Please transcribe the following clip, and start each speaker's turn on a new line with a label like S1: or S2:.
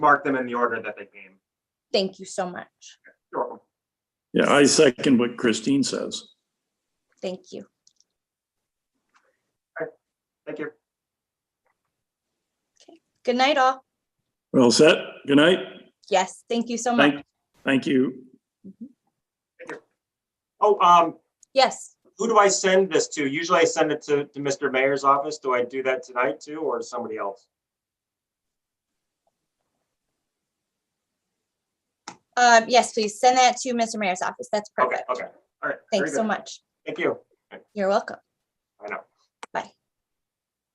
S1: mark them in the order that they came.
S2: Thank you so much.
S1: You're welcome.
S3: Yeah, I second what Christine says.
S2: Thank you.
S1: Thank you.
S2: Good night, all.
S3: Well set. Good night.
S2: Yes, thank you so much.
S3: Thank, thank you.
S1: Oh, um,
S2: Yes,
S1: who do I send this to? Usually I send it to, to Mr. Mayor's office. Do I do that tonight too, or to somebody else?
S2: uh, yes, please send that to Mr. Mayor's office. That's
S1: Okay,
S2: perfect.
S1: okay, all right. very
S2: Thanks so
S1: good.
S2: much.
S1: Thank you.
S2: You're welcome.
S1: I know.